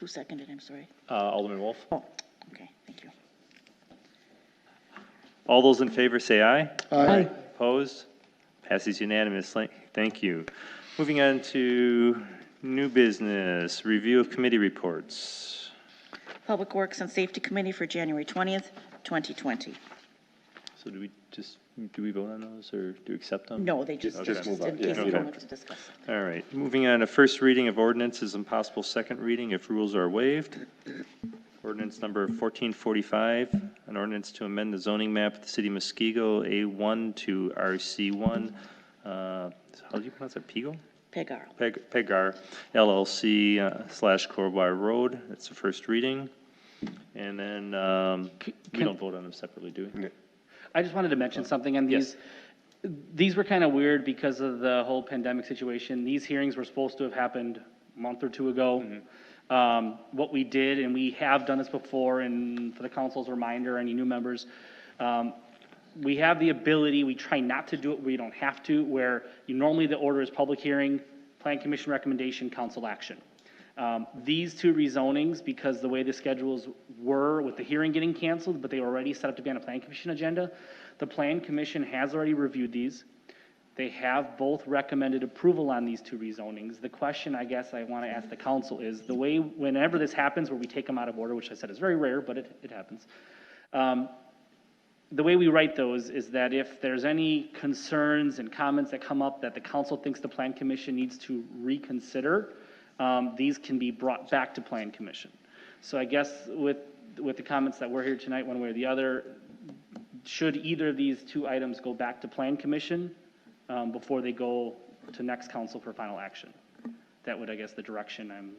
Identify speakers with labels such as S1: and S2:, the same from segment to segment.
S1: Who seconded, I'm sorry?
S2: Uh, Alderman Wolf.
S1: Oh, okay, thank you.
S2: All those in favor say aye.
S3: Aye.
S2: Opposed? Passes unanimously. Thank you. Moving on to new business, review of committee reports.
S1: Public Works and Safety Committee for January 20th, 2020.
S2: So do we just, do we vote on those or do we accept them?
S1: No, they just,
S2: Okay.
S1: just in case
S2: Okay.
S1: we wanted to discuss it.
S2: All right, moving on to first reading of ordinances and possible second reading if rules are waived. Ordinance number 1445, an ordinance to amend the zoning map of the city of Muskego, A1 to RC1. uh, How do you pronounce it, Pigo?
S1: Pegaro.
S2: Peg- Pegar LLC uh, slash Corbar Road. That's the first reading. And then um, we
S4: can-
S2: don't vote on them separately, do we?
S4: I just wanted to mention something on
S2: Yes.
S4: these. These were kind of weird because of the whole pandemic situation. These hearings were supposed to have happened a month or two ago. Um, What we did, and we have done this before, and for the council's reminder, any new members, um, we have the ability, we try not to do it, where you don't have to, where you- normally the order is public hearing, plan commission recommendation, council action. Um, These two rezonings, because the way the schedules were with the hearing getting canceled, but they were already set up to be on a plan commission agenda, the plan commission has already reviewed these. They have both recommended approval on these two rezonings. The question I guess I want to ask the council is, the way, whenever this happens, where we take them out of order, which I said is very rare, but it, it happens. um, the way we write those is that if there's any concerns and comments that come up that the council thinks the plan commission needs to reconsider, um, these can be brought back to plan commission. So I guess with, with the comments that were here tonight, one way or the other, should either of these two items go back to plan commission, um, before they go to next council for final action? That would, I guess, the direction I'm,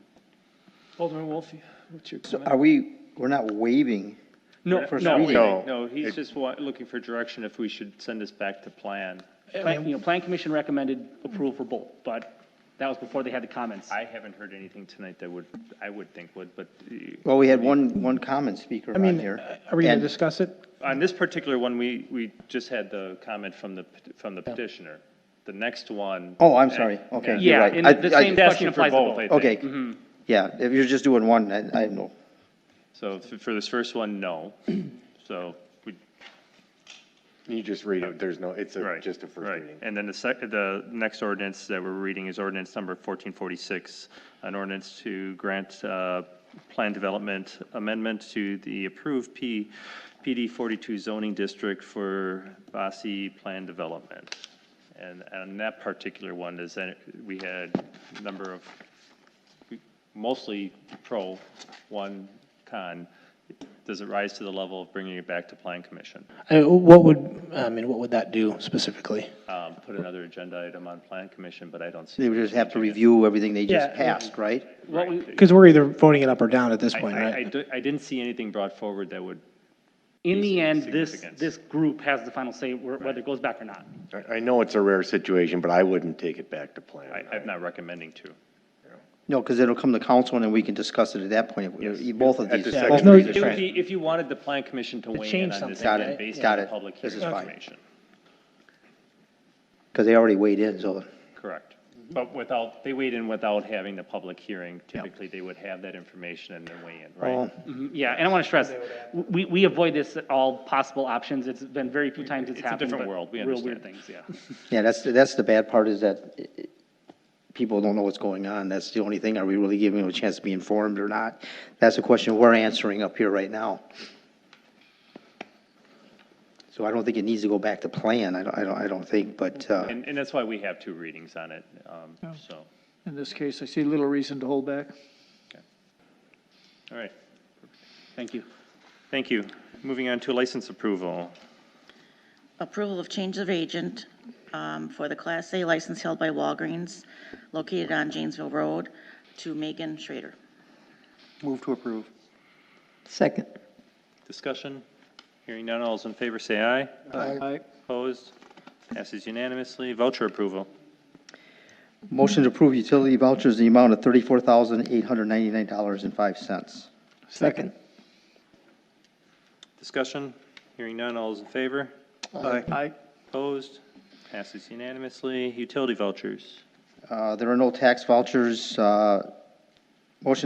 S5: Alderman Wolf, what's your
S3: So
S5: comment?
S3: are we, we're not waiving,
S4: no,
S5: First
S4: no,
S3: reading.
S2: No.
S5: No, he's
S2: just looking for direction if we should send this back to plan.
S4: plan, you know, plan commission recommended approval for both, but that was before they had the comments.
S2: I haven't heard anything tonight that would, I would think would, but uh,
S3: well, we had one, one common speaker
S5: I
S3: on
S5: mean, uh,
S3: here.
S5: are we going
S3: And-
S5: to discuss it?
S2: on this particular one, we, we just had the comment from the, from the petitioner. The next one.
S3: Oh, I'm sorry, okay, you're
S4: Yeah,
S3: right.
S4: and
S3: I-
S4: the
S3: I-
S4: same
S2: It's asking
S4: question Mm-hmm.
S2: for
S4: applies to
S2: both,
S4: both.
S2: I think.
S3: Okay, yeah, if you're just doing one, I, I know.
S2: So f- for this first one, no. So we,
S6: You just read it, there's no, it's a,
S2: right.
S6: just a first
S2: right.
S6: reading.
S2: And then the sec, the next ordinance that we're reading is ordinance number 1446, an ordinance to grant uh, plan development amendment to the approved P, PD 42 zoning district for Bossy Plan Development. And, and that particular one is, that we had a number of mostly pro, one con. Does it rise to the level of bringing it back to plan commission?
S7: Uh, What would, I mean, what would that do specifically?
S2: Um, Put another agenda item on plan commission, but I don't see.
S3: They would just have to review everything they just
S5: Yeah.
S3: passed, right?
S4: What we,
S7: Because we're either voting it up or down at this
S2: I-
S7: point,
S2: I, I
S7: right?
S2: do- I didn't see anything brought forward that would,
S4: In the
S2: These
S4: end, this,
S2: significance.
S4: this group has the final say where- whether it goes back or not.
S6: I, I know it's a rare situation, but I wouldn't take it back to plan.
S2: I, I'm not recommending to.
S3: No, because it'll come to council and then we can discuss it at that point, both of
S6: At
S3: these.
S6: the
S3: both
S6: second
S3: of
S5: reading.
S3: these
S2: It would
S3: are-
S2: be, if you wanted the plan commission to weigh in
S5: change
S2: on this.
S5: something,
S3: Got
S2: again
S3: it,
S2: Based
S3: got
S2: on
S3: it.
S2: public
S3: This
S2: hearing
S3: is fine.
S2: information.
S3: Because they already weighed in, so,
S2: Correct. But without, they weighed in without having the public hearing. Typically, they would have that information and then weigh in, right?
S3: oh,
S4: Mhm, Yeah, and I want to stress, we, we avoid this at all possible options. It's been very few times it's
S2: It's a
S4: happened.
S2: different
S4: but
S2: world, we
S4: Real weird
S2: understand.
S4: things, yeah.
S3: yeah, that's, that's the bad part is that eh, eh, people don't know what's going on. That's the only thing. Are we really giving them a chance to be informed or not? That's a question we're answering up here right now. So I don't think it needs to go back to plan. I don't, I don't, I don't think, but, uh,
S2: And, and that's why we have two readings on it, um, so.
S5: Oh. In this case, I see little reason to hold back.
S2: All right,
S4: Thank you.
S2: thank you. Moving on to license approval.
S1: Approval of change of agent um, for the Class A license held by Walgreens located on Janesville Road to Megan Schrader.
S3: move to approve.
S8: Second.
S2: Discussion? Hearing none, all those in favor say aye.
S5: Aye.
S2: Opposed? Passes unanimously. Voucher approval.
S3: Motion to approve utility vouchers in the amount of thirty-four thousand, eight hundred ninety-nine dollars and five cents.
S5: Second.
S2: Discussion? Hearing none, all those in favor?
S5: Aye.
S2: Opposed? Passes unanimously. Utility vouchers.
S3: Uh, there are no tax vouchers, uh, motion